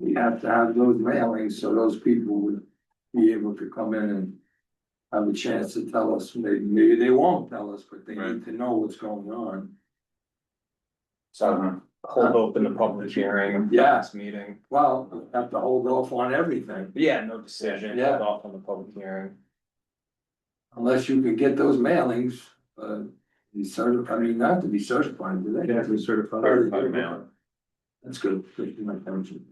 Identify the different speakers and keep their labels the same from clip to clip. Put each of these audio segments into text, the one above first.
Speaker 1: we have to have those mailings so those people would be able to come in and have a chance to tell us, maybe, maybe they won't tell us, but they need
Speaker 2: Right.
Speaker 1: to know what's going on.
Speaker 2: So hold open the public hearing.
Speaker 1: Uh-huh. Yeah.
Speaker 2: Last meeting.
Speaker 1: Well, we have to hold off on everything
Speaker 2: But Yeah, no decision.
Speaker 1: Yeah.
Speaker 2: Hold off on the public hearing.
Speaker 1: unless you can get those mailings, uh, be certified, I mean, not to be certified, do they?
Speaker 3: to be
Speaker 1: Oh,
Speaker 3: certified.
Speaker 1: Certified mail. That's good, good, my pension.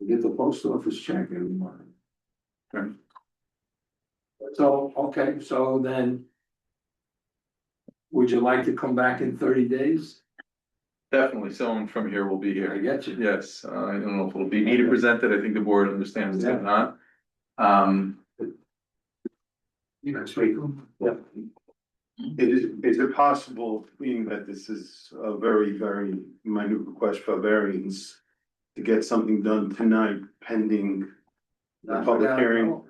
Speaker 1: We get the post office check every month.
Speaker 2: Okay.
Speaker 1: So, okay, so then. Would you like to come back in thirty days?
Speaker 4: Definitely, someone from here will be
Speaker 1: I
Speaker 4: here.
Speaker 1: get you.
Speaker 4: Yes, uh, I don't know if it'll be me to present it. I think the board understands
Speaker 1: Yeah.
Speaker 4: that not. Um,
Speaker 1: Next week. Yeah.
Speaker 3: It is, is it possible, being that this is a very, very minute request for variance, to get something done tonight pending? The public hearing.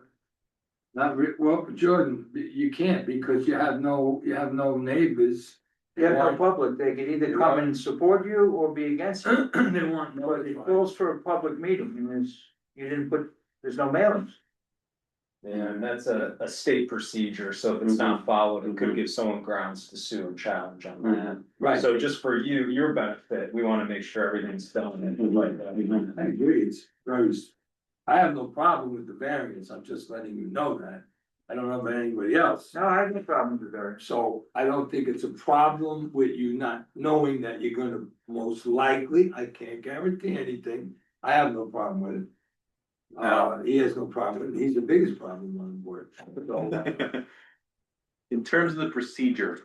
Speaker 1: Not re, well, Jordan, you can't because you have no, you have no neighbors.
Speaker 5: They have no public, they can either come and support you or be against you,
Speaker 1: They want
Speaker 5: but it calls for a public meeting, and there's, you didn't put, there's no mailings.
Speaker 2: And that's a, a state procedure, so if it's
Speaker 4: Mm-hmm.
Speaker 2: not followed, it could give someone grounds to sue and challenge on
Speaker 4: Mm-hmm.
Speaker 2: that.
Speaker 1: Right,
Speaker 2: So just for you, your benefit, we wanna make sure everything's done and like that.
Speaker 1: I agree, it's very, s- I have no problem with the variance, I'm just letting you know that. I don't know about anybody else,
Speaker 5: No, I have no problem with variance.
Speaker 1: so I don't think it's a problem with you not knowing that you're gonna most likely, I can't guarantee anything. I have no problem with it. Uh, he has no problem, with it. he's the biggest problem on the board. So,
Speaker 4: in terms of the procedure.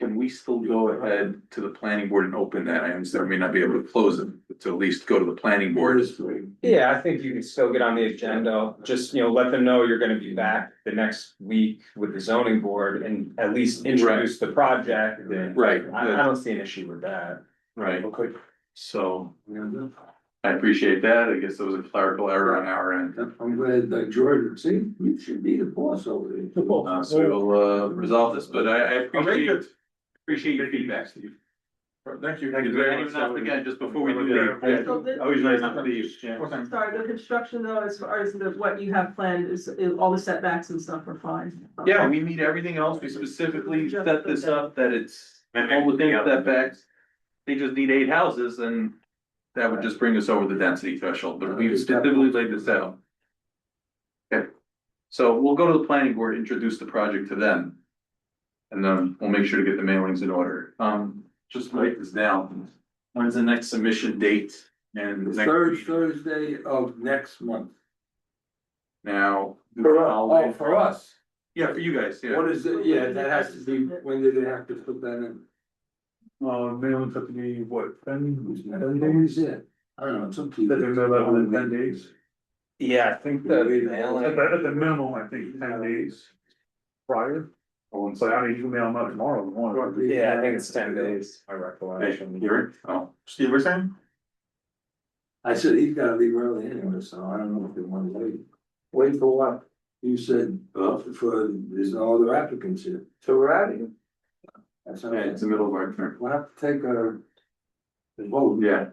Speaker 4: Can we still go ahead to the planning board and open that? I understand we may not be able to close it, but to at least go to the planning
Speaker 1: Board
Speaker 4: board.
Speaker 1: is three.
Speaker 2: Yeah, I think you can still get on the agenda, just, you know, let them know you're gonna be back the next week with the zoning board and at least introduce the project and.
Speaker 4: Right,
Speaker 2: I, I
Speaker 4: good,
Speaker 2: don't see an issue with that.
Speaker 4: right. So
Speaker 1: Yeah,
Speaker 4: I appreciate that. I guess it was a clerical error on our end.
Speaker 1: I'm glad that Jordan, see, you should be the boss over there.
Speaker 4: Uh, so we'll uh resolve this, but I I appreciate. Appreciate your feedback, Steve. Thank you. Thank you very much. Again, just before we do that.
Speaker 6: So this-
Speaker 4: Always nice to see you.
Speaker 6: Sorry, the construction though, as far as the, what you have planned is, is all the setbacks and stuff are fine.
Speaker 4: Yeah, we need everything else. We specifically set this up that it's all within setbacks. They just need eight houses and that would just bring us over the density threshold, but we've specifically laid this out. Okay, so we'll go to the planning board, introduce the project to them. And then we'll make sure to get the mailings in order. Um, just write this down. When's the next submission date and?
Speaker 1: The
Speaker 4: next-
Speaker 1: third Thursday of next month.
Speaker 4: Now.
Speaker 1: Oh, for us,
Speaker 4: Yeah, for you guys, yeah.
Speaker 1: what is it, yeah, that has to be, when did they have to put that in?
Speaker 3: Uh, minimum took me, what, ten,
Speaker 1: When is it? I don't know, it's up to you.
Speaker 3: That they're not allowed in 10 days.
Speaker 2: Yeah, I think
Speaker 1: the
Speaker 3: At the, at the minimum, I think ten days prior, so I mean, you can mail them out tomorrow if you want.
Speaker 2: Yeah, I think it's ten days, my recollection.
Speaker 4: Here, oh.
Speaker 3: Steve, we're saying?
Speaker 1: I said he's gotta leave early anyway, so I don't know if they wanna wait. Wait for what? You said, uh, for, there's no other applicants here.
Speaker 5: So we're out of here.
Speaker 1: That's
Speaker 4: Yeah,
Speaker 1: okay.
Speaker 4: it's the middle of our term.
Speaker 1: We'll have to take a. a vote.
Speaker 4: Yeah.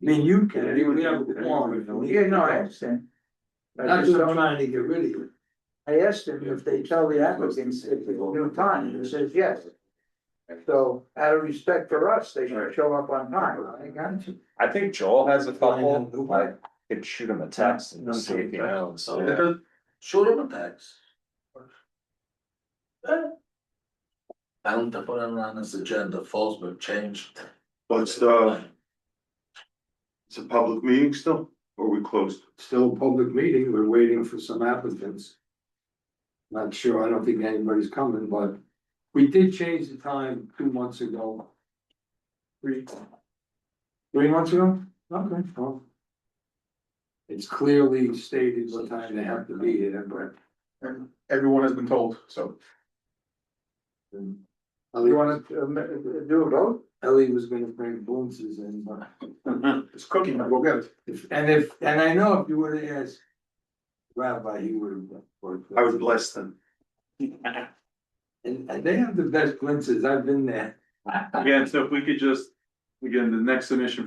Speaker 1: I mean, you can, we have a quorum.
Speaker 5: Yeah, no, I understand. I
Speaker 1: Not
Speaker 5: just
Speaker 1: just
Speaker 5: don't-
Speaker 1: trying to get rid of you.
Speaker 5: I asked him if they tell the applicants if it's new time, and he says yes. So out of respect for us, they should show up on time.
Speaker 1: I got you.
Speaker 2: I think Joel has a couple,
Speaker 1: Fine.
Speaker 2: I could shoot him a text and see if he knows. Yeah.
Speaker 5: uh,
Speaker 7: Shoot him a text. I don't put it on this agenda, Fallsburg changed.
Speaker 3: But uh, it's a public meeting still, or we closed?
Speaker 1: Still a public meeting, we're waiting for some applicants. Not sure, I don't think anybody's coming, but we did change the time two months ago. Three. Three months ago? Okay, well. It's clearly stated what time they have to be here, but.
Speaker 4: Everyone has been told, so.
Speaker 5: You
Speaker 1: Ellie,
Speaker 5: wanna uh, ma- uh, do a vote?
Speaker 1: Ellie was gonna bring boonses in, but
Speaker 4: It's cooking, we'll get it.
Speaker 1: if, and if, and I know if you would have asked. Rabbi, he would have.
Speaker 3: I was blessed then.
Speaker 1: And, and they have the best glimpses, I've been there.
Speaker 4: Again, so if we could just Again, the next submission